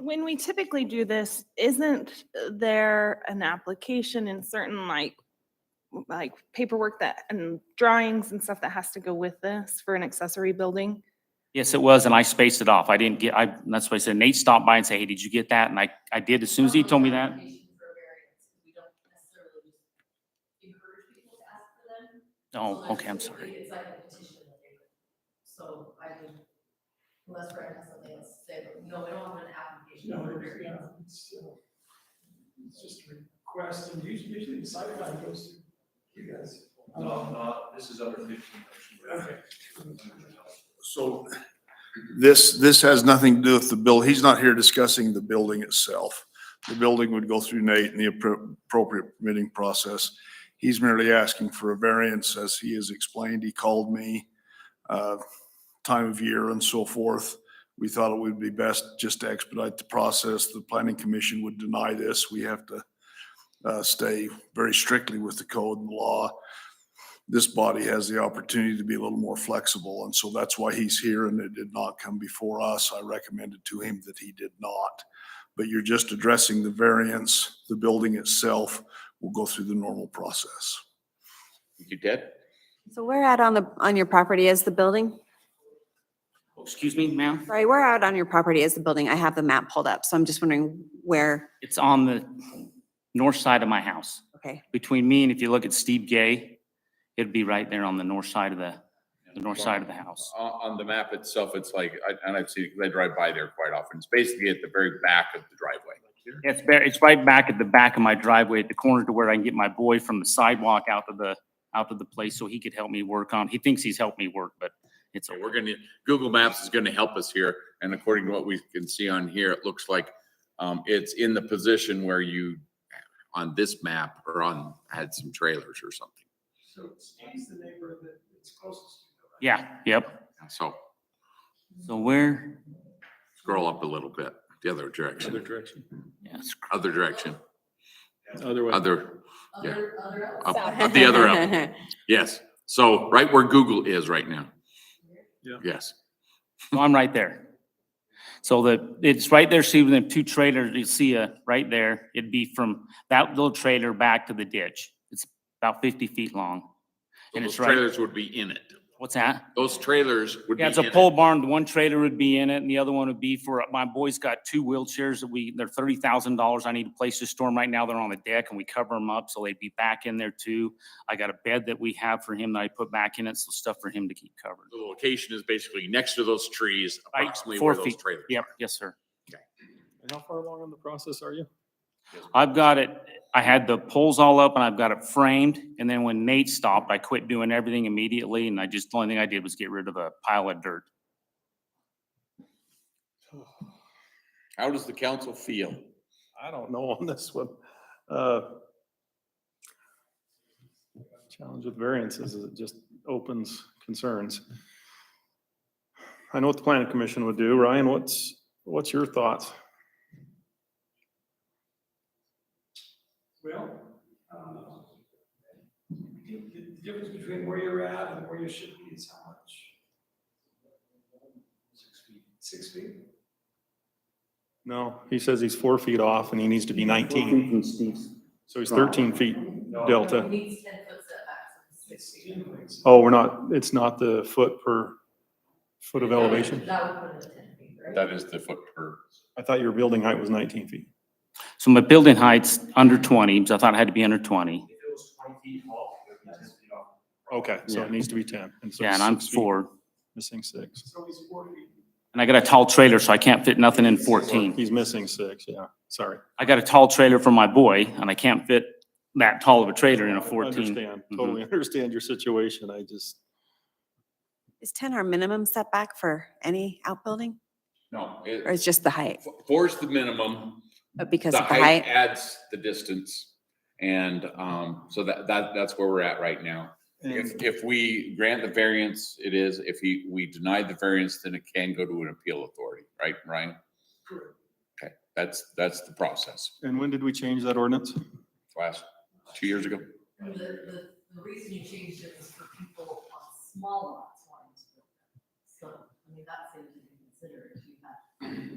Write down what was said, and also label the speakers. Speaker 1: when we typically do this, isn't uh, there an application and certain like, like paperwork that, and drawings and stuff that has to go with this for an accessory building?
Speaker 2: Yes, it was, and I spaced it off. I didn't get, I, that's why I said Nate stopped by and said, hey, did you get that? And I, I did as soon as he told me that. Oh, okay, I'm sorry.
Speaker 3: It's like a petition that they do. So I mean, unless Brad has something else to say, but no, I don't want an application
Speaker 4: No,
Speaker 3: for
Speaker 4: it's, yeah,
Speaker 3: variance.
Speaker 4: it's, uh, it's just a request, and usually, usually the site plan goes to you guys.
Speaker 5: No, no, this is under fifteen.
Speaker 4: Okay.
Speaker 6: So this, this has nothing to do with the bill. He's not here discussing the building itself. The building would go through Nate in the appro- appropriate permitting process. He's merely asking for a variance, as he has explained. He called me, uh, time of year and so forth. We thought it would be best just to expedite the process. The planning commission would deny this. We have to uh, stay very strictly with the code and law this body has the opportunity to be a little more flexible. And so that's why he's here and it did not come before us. I recommended to him that he did not. But you're just addressing the variance. The building itself will go through the normal process.
Speaker 7: You did?
Speaker 8: So we're out on the, on your property as the building?
Speaker 2: Oh, Excuse me, ma'am?
Speaker 8: Sorry, we're out on your property as the building. I have the map pulled up, so I'm just wondering where,
Speaker 2: It's on the north side of my house.
Speaker 8: okay.
Speaker 2: Between me and if you look at Steve Gay, it'd be right there on the north side of the, the north side of the house.
Speaker 7: On, on the map itself, it's like, I- and I've seen, it 'cause I drive by there quite often. It's basically at the very back of the driveway.
Speaker 2: It's, ba- it's right back at the back of my driveway at the corner to where I can get my boy from the sidewalk out to the, out to the place so he could help me work on. He thinks he's helped me work, but it's,
Speaker 7: So we're gonna, Google Maps is gonna help us here, and according to what we can see on here, it looks like um, it's in the position where you, on this map, or on, had some trailers or something.
Speaker 4: So Steve's the neighbor that it's closest to. you, right?
Speaker 2: yeah, yep.
Speaker 7: So
Speaker 2: So where,
Speaker 7: scroll up a little bit, the other direction,
Speaker 5: direction.
Speaker 2: yes,
Speaker 7: other direction,
Speaker 5: Other way.
Speaker 7: other, Yeah.
Speaker 3: Other, other. outlets.
Speaker 7: up, up the other up. Yes, so right where Google is right now.
Speaker 5: Yeah.
Speaker 7: Yes,
Speaker 2: so I'm right there. So the, it's right there, see the two trailers, you see uh right there, it'd be from that little trailer back to the ditch. It's about fifty feet long.
Speaker 7: So
Speaker 2: And
Speaker 7: those
Speaker 2: it's right-
Speaker 7: trailers would be in it.
Speaker 2: What's that?
Speaker 7: Those trailers would be
Speaker 2: Yeah, it's a
Speaker 7: in it.
Speaker 2: pole barn. The one trailer would be in it and the other one would be for, my boy's got two wheelchairs that we, they're thirty thousand dollars. I need a place to store them right now. They're on the deck and we cover them up, so they'd be back in there too. I got a bed that we have for him that I put back in it, so stuff for him to keep covered.
Speaker 7: The location is basically next to those trees,
Speaker 2: Right,
Speaker 7: approximately
Speaker 2: four
Speaker 7: where those
Speaker 2: feet.
Speaker 7: trailers.
Speaker 2: Yep, yes, sir.
Speaker 5: And how far along in the process are you?
Speaker 2: I've got it, I had the poles all up and I've got it framed. And then when Nate stopped, I quit doing everything immediately and I just, the only thing I did was get rid of a pile of dirt.
Speaker 7: How does the council feel?
Speaker 5: I don't know on this one. Uh, Challenge with variances is it just opens concerns. I know what the planning commission would do. Ryan, what's, what's your thoughts?
Speaker 4: Well, uh, the, the difference between where you're at and where you should be is how much? Six feet. Six feet?
Speaker 5: No, he says he's four feet off and he needs to be nineteen. So he's thirteen feet
Speaker 3: No,
Speaker 5: delta.
Speaker 3: he needs ten foot setbacks.
Speaker 4: It's generally-
Speaker 5: Oh, we're not, it's not the foot per foot of elevation?
Speaker 3: That would put it at ten feet, right?
Speaker 7: That is the foot per.
Speaker 5: I thought your building height was nineteen feet.
Speaker 2: So my building height's under twenty, because I thought it had to be under twenty.
Speaker 5: Okay, so
Speaker 2: Yeah.
Speaker 5: it needs to be ten. so
Speaker 2: Yeah, and I'm
Speaker 5: six feet,
Speaker 2: four.
Speaker 5: Missing six.
Speaker 4: So he's four feet.
Speaker 2: And I got a tall trailer, so I can't fit nothing in fourteen.
Speaker 5: He's missing six, yeah, sorry.
Speaker 2: I got a tall trailer for my boy, and I can't fit that tall of a trailer in a
Speaker 5: I
Speaker 2: fourteen.
Speaker 5: Understand,
Speaker 2: Mhm.
Speaker 5: totally understand your situation, I just,
Speaker 8: Is 10 our minimum setback for any outbuilding
Speaker 7: No.
Speaker 8: or is just the height?
Speaker 7: Four's the minimum.
Speaker 8: But because
Speaker 7: The
Speaker 8: of the height?
Speaker 7: height adds the distance. And um, so that, that, that's where we're at right now. If, if we grant the variance, it is, if he, we deny the variance, then it can go to an appeal authority, right, Ryan?
Speaker 4: Correct.
Speaker 7: Okay, that's, that's the process.
Speaker 5: and when did we change that ordinance?
Speaker 7: Last, two years ago?
Speaker 3: And The, the, the reason you changed it was for people on small lots wanting to build them. So, I mean, that's something to consider if you have